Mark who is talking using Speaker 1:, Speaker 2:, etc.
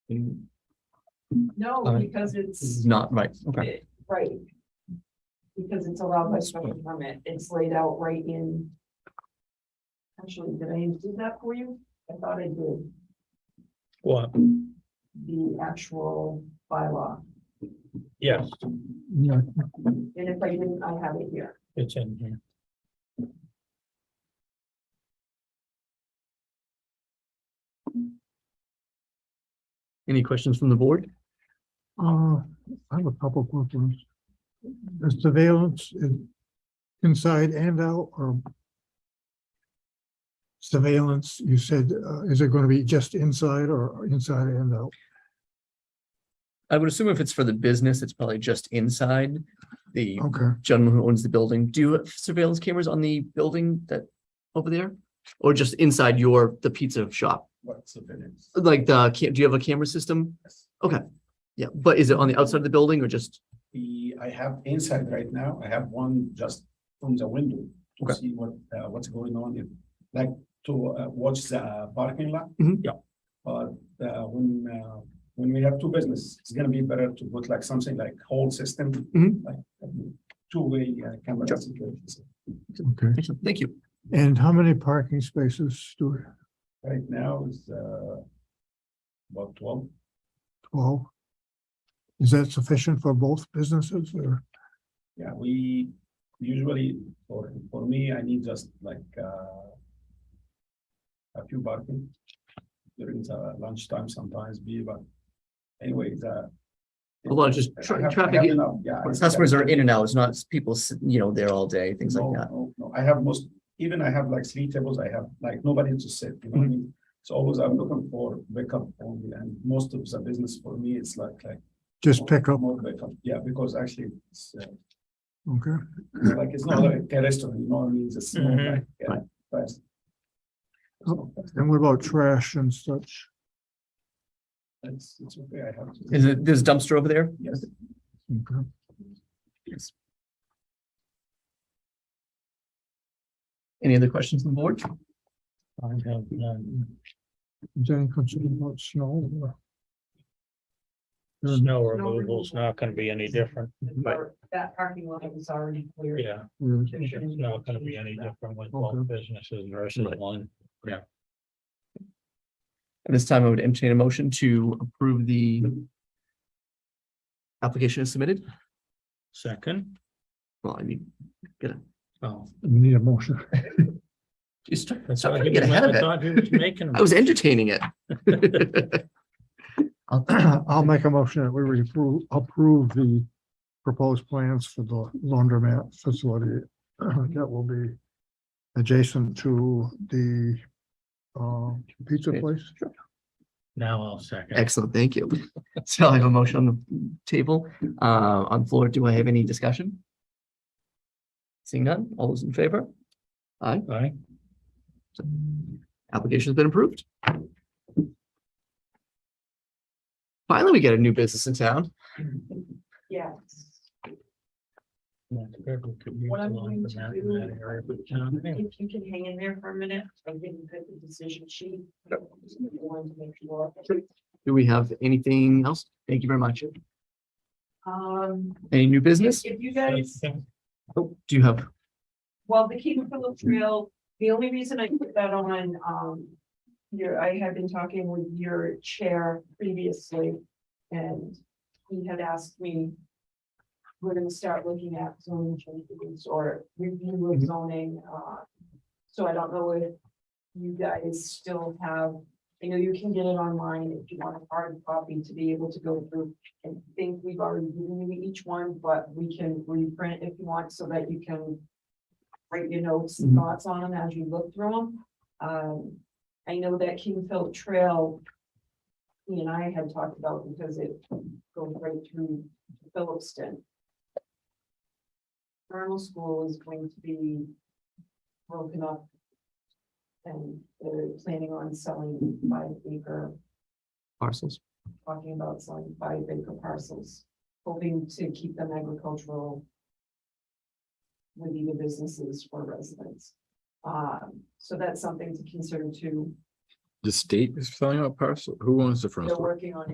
Speaker 1: And
Speaker 2: No,
Speaker 1: Uh,
Speaker 2: because
Speaker 1: This is
Speaker 2: it's,
Speaker 1: not right, Mm-hmm. okay.
Speaker 2: it- right. Because it's allowed by special permit, it's laid out right in. Actually, did I do that for you? I thought I did,
Speaker 3: What?
Speaker 2: the actual bylaw,
Speaker 3: Yes,
Speaker 1: Yeah,
Speaker 2: and if I didn't, I have it here.
Speaker 3: it's in here.
Speaker 1: Any questions from the board?
Speaker 4: Uh, I have a couple questions. The surveillance in- inside and out or surveillance, you said, uh, is it going to be just inside or inside and out?
Speaker 1: I would assume if it's for the business, it's probably just inside. The
Speaker 4: Okay,
Speaker 1: gentleman who owns the building, do you have surveillance cameras on the building that, over there? Or just inside your, the pizza shop?
Speaker 5: What's the difference?
Speaker 1: Like the, ca- do you have a camera system?
Speaker 5: Yes.
Speaker 1: Okay, yeah, but is it on the outside of the building or just,
Speaker 5: The, I have inside right now, I have one just from the window
Speaker 1: Okay.
Speaker 5: to see what, uh, what's going on in, like to uh, watch the parking lot.
Speaker 1: Mhm.
Speaker 3: Yeah.
Speaker 5: But, uh, when, uh, when we have two business, it's gonna be better to put like something like whole system.
Speaker 1: Mhm.
Speaker 5: like, um, Two-way uh, camera
Speaker 1: Sure.
Speaker 5: situations.
Speaker 4: okay.
Speaker 1: Excellent, thank you.
Speaker 4: And how many parking spaces do we,
Speaker 5: Right now is, uh, about twelve.
Speaker 4: twelve? Is that sufficient for both businesses or?
Speaker 5: Yeah, we usually, for, for me, I need just like, uh, a few parking during the lunchtime sometimes be, but anyway, the.
Speaker 1: A lot of just
Speaker 5: I
Speaker 1: tra-
Speaker 5: have- I
Speaker 1: traffic
Speaker 5: have
Speaker 1: in-
Speaker 5: enough, Yeah. I-
Speaker 1: Customers are in and out, it's not people, sit- you know, there all day, things
Speaker 5: No,
Speaker 1: like that.
Speaker 5: No, no, I have most, even I have like three tables, I have like nobody to sit, you know
Speaker 1: Mm-hmm.
Speaker 5: what I mean? So always I'm looking for backup only, and most of the business for me, it's like, like.
Speaker 4: Just pick up,
Speaker 5: More backup, yeah, because actually, it's, uh,
Speaker 4: okay?
Speaker 5: It's like it's not like a restaurant, you know what I mean? It's a small
Speaker 3: Mhm.
Speaker 5: like, yeah,
Speaker 1: Mm-hmm. Right.
Speaker 5: place.
Speaker 4: Oh. And what about trash and such?
Speaker 5: It's, it's okay, I have. to-
Speaker 1: Is it, there's a dumpster over there?
Speaker 5: Yes,
Speaker 4: Okay.
Speaker 1: Yes. Any other questions on the board?
Speaker 3: I have none.
Speaker 4: Is there any concern about snow or?
Speaker 3: Snow removal's not gonna be any different.
Speaker 1: Right.
Speaker 2: That parking lot was already cleared.
Speaker 3: Yeah,
Speaker 4: or-
Speaker 3: it's not gonna be any different with both businesses versus
Speaker 1: Right.
Speaker 3: one.
Speaker 1: At this time, I would entertain a motion to approve the application as submitted.
Speaker 3: Second,
Speaker 1: Well, I mean,
Speaker 3: oh.
Speaker 4: We need a motion.
Speaker 1: you start,
Speaker 3: I
Speaker 1: start trying to get ahead of it.
Speaker 3: thought he was making.
Speaker 1: I was entertaining it. I'll-
Speaker 4: I'll make a motion that we would approve, approve the proposed plans for the laundromat facility uh, that will be adjacent to the uh, pizza place.
Speaker 3: Now I'll second.
Speaker 1: Excellent, thank you. So I have a motion on the table, uh, on floor. Do I have any discussion? Seeing none, all those in favor?
Speaker 3: Aye.
Speaker 1: Application's been approved. Finally, we get a new business in town.
Speaker 2: Yes.
Speaker 3: That's good. We could use
Speaker 2: What
Speaker 3: a
Speaker 2: I'm
Speaker 3: lot
Speaker 2: going
Speaker 3: for
Speaker 2: to
Speaker 3: that
Speaker 2: do-
Speaker 3: in that area, but, um, anyway,
Speaker 2: If you can hang in there for a minute, I didn't put the decision sheet. I wanted to make sure.
Speaker 1: Do we have anything else? Thank you very much.
Speaker 2: Um,
Speaker 1: Any new
Speaker 2: if
Speaker 1: business?
Speaker 2: if you guys
Speaker 1: Oh, Do you have,
Speaker 2: Well, the Cape Philip Trail, the only reason I put that on, um, your, I had been talking with your chair previously. And he had asked me, we're gonna start looking at zoning changes or review of zoning, uh. So I don't know if you guys still have, I know you can get it online if you want a hard copy to be able to go through. I think we've already given you each one, but we can reprint if you want so that you can write your notes and
Speaker 1: Mhm.
Speaker 2: thoughts on them as you look through them. Um, I know that Kingfield Trail, he and I had talked about because it goes right through Phillipston. Vernal School is going to be broken up. And they're planning on selling five acre,
Speaker 1: parcels?
Speaker 2: talking about selling five acre parcels, hoping to keep them agricultural with either businesses or residents. Um, so that's something to consider too.
Speaker 6: The state is filling out parcel, who owns the front?
Speaker 2: They're
Speaker 6: store?
Speaker 2: working on